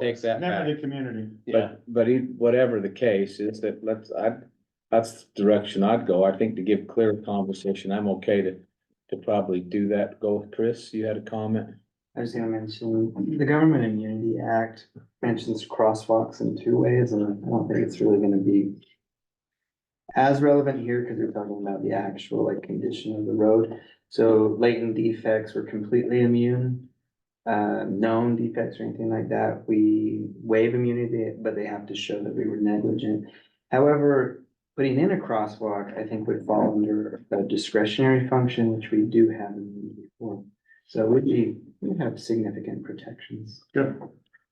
takes that Remember back. the community. Yeah, But, but e- whatever the case is that let's, I, that's the direction I'd go. I think to give clear conversation, I'm okay to, to probably do that. Go, Chris, you had a comment? I was gonna mention, the Government Immunity Act mentions crosswalks in two ways, and I don't think it's really gonna be. As relevant here, because we're talking about the actual like condition of the road, so latent defects were completely immune. Uh, known defects or anything like that, we waive immunity, but they have to show that we were negligent. However, putting in a crosswalk, I think would fall under a discretionary function, which we do have immunity for. So we'd be, we'd have significant protections. Good.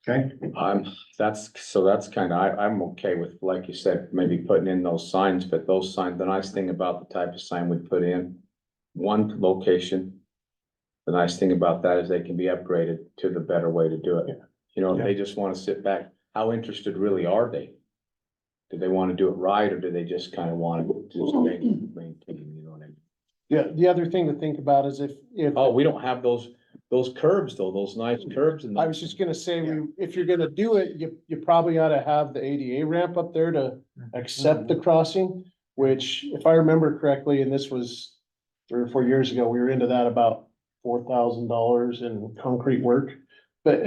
Okay, I'm, that's, so that's kind of, I, I'm okay with, like you said, maybe putting in those signs, but those signs, the nice thing about the type of sign we put in, one location. The nice thing about that is they can be upgraded to the better way to do it. You know, if they just want to sit back, how interested really are they? Do they want to do it right, or do they just kind of want to just maintain, maintain, you know what I mean? Yeah, the other thing to think about is if, if, Oh, we don't have those, those curbs though, those nice curbs and. I was just gonna say, we, if you're gonna do it, you, you probably ought to have the ADA ramp up there to accept the crossing, which if I remember correctly, and this was three or four years ago, we were into that about four thousand dollars in concrete work. But,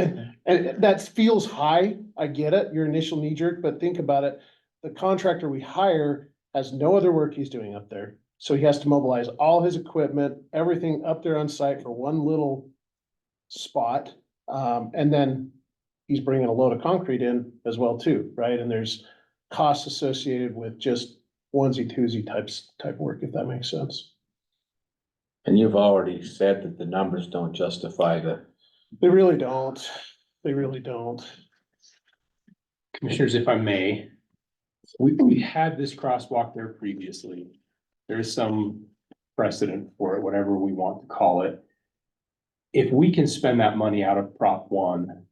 and that feels high, I get it, your initial knee jerk, but think about it. The contractor we hire has no other work he's doing up there. So he has to mobilize all his equipment, everything up there on site for one little spot. Um, and then he's bringing a load of concrete in as well too, right? And there's costs associated with just onesie twosie types, type work, if that makes sense. And you've already said that the numbers don't justify the. They really don't. They really don't. commissioners, if I may, we, we had this crosswalk there previously. There is some precedent for it, whatever we want to call it. If we can spend that money out of Prop one,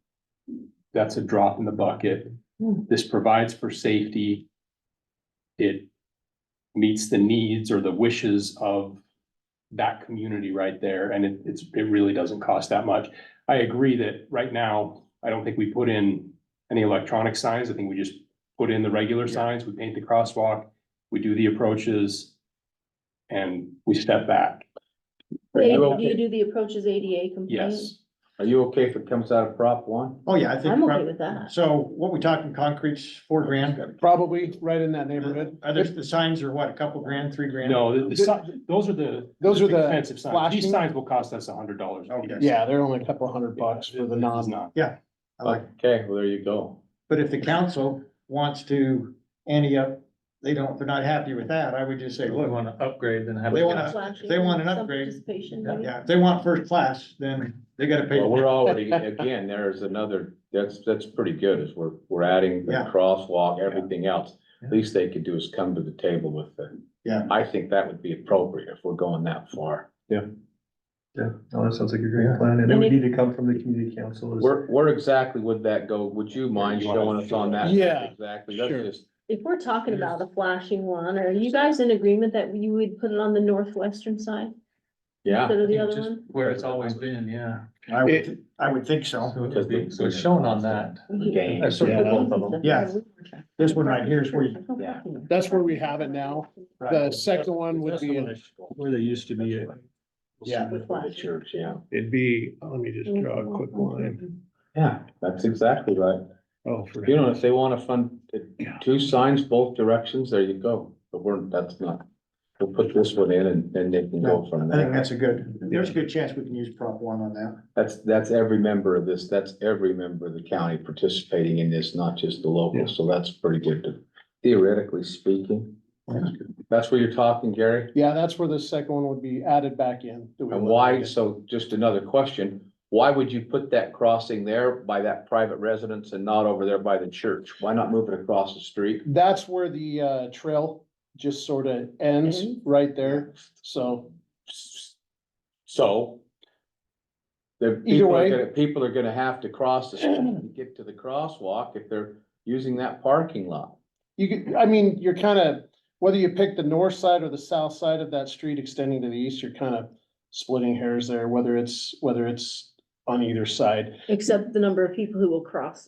that's a drop in the bucket. This provides for safety. It meets the needs or the wishes of that community right there, and it, it's, it really doesn't cost that much. I agree that right now, I don't think we put in any electronic signs. I think we just put in the regular signs, we paint the crosswalk, we do the approaches, and we step back. Are you Do you okay, do the approaches ADA compliant? Yes. are you okay if it comes out of Prop one? oh yeah, I think. I'm okay with that. So what we talking, concrete's four grand? Probably right in that neighborhood. Are there, the signs are what, a couple grand, three grand? No, the- the si- those are the. Those are the Expensive signs. These flashing- signs will cost us a hundred dollars. Okay. Yeah, they're only a couple hundred bucks for the non. not. I like- Okay, well, there you go. But if the council wants to ante up, they don't, they're not happy with that, I would just say, look. Wanna upgrade then have. They wanna, Flashing, they want an some upgrade. Participation, maybe? yeah, if they want first class, then they gotta pay. Well, we're already, again, there's another, that's, that's pretty good, is we're, we're adding the Yeah. crosswalk, everything else. Least they could do is come to the table with the. Yeah. I think that would be appropriate if we're going that far. Yeah, no, that sounds like a great plan, and it would need to come from the community council. is- Where, where exactly would that go? Would you mind You wanna- showing us on that? Yeah, Exactly, that's sure. just, If we're talking about a flashing one, are you guys in agreement that you would put it on the northwestern side yeah, instead of the other one? Where it's always been, yeah. I would, thi- I would think so. Because the- So it's shown on that. Game. I circled both of them. Yes. This one right here is where you, Yeah. That's where we have it now. The second one would be, in- Where they used to be, yeah, With the flashing. church, yeah. it'd be, let me just draw Mm-hmm. a quick line. Yeah, that's exactly right. Oh, for You know, if they wanna fund uh, Yeah. two signs both directions, there you go, but we're, that's not, we'll put this one in and then they can go from I think there. that's a good, there's a good chance we can use Prop one on that. That's, that's every member of this, that's every member of the county participating in this, not just the Yeah. locals, so that's pretty good to- theoretically speaking. That's where you're talking, Gary, yeah, that's where the second one would be added back in. that we and would- why, so just another question, why would you put that crossing there by that private residence and not over there by the church? Why not move it across the street? That's where the uh trail just sort of ends Ends? right there. So So. The Either people are way. gonna, people are gonna have to cross the street to get to the crosswalk if they're using that parking lot. You could, I mean, you're kind of, whether you pick the north side or the south side of that street extending to the east, you're kind of splitting hairs there, whether it's, whether it's on either side. Except the number of people who will cross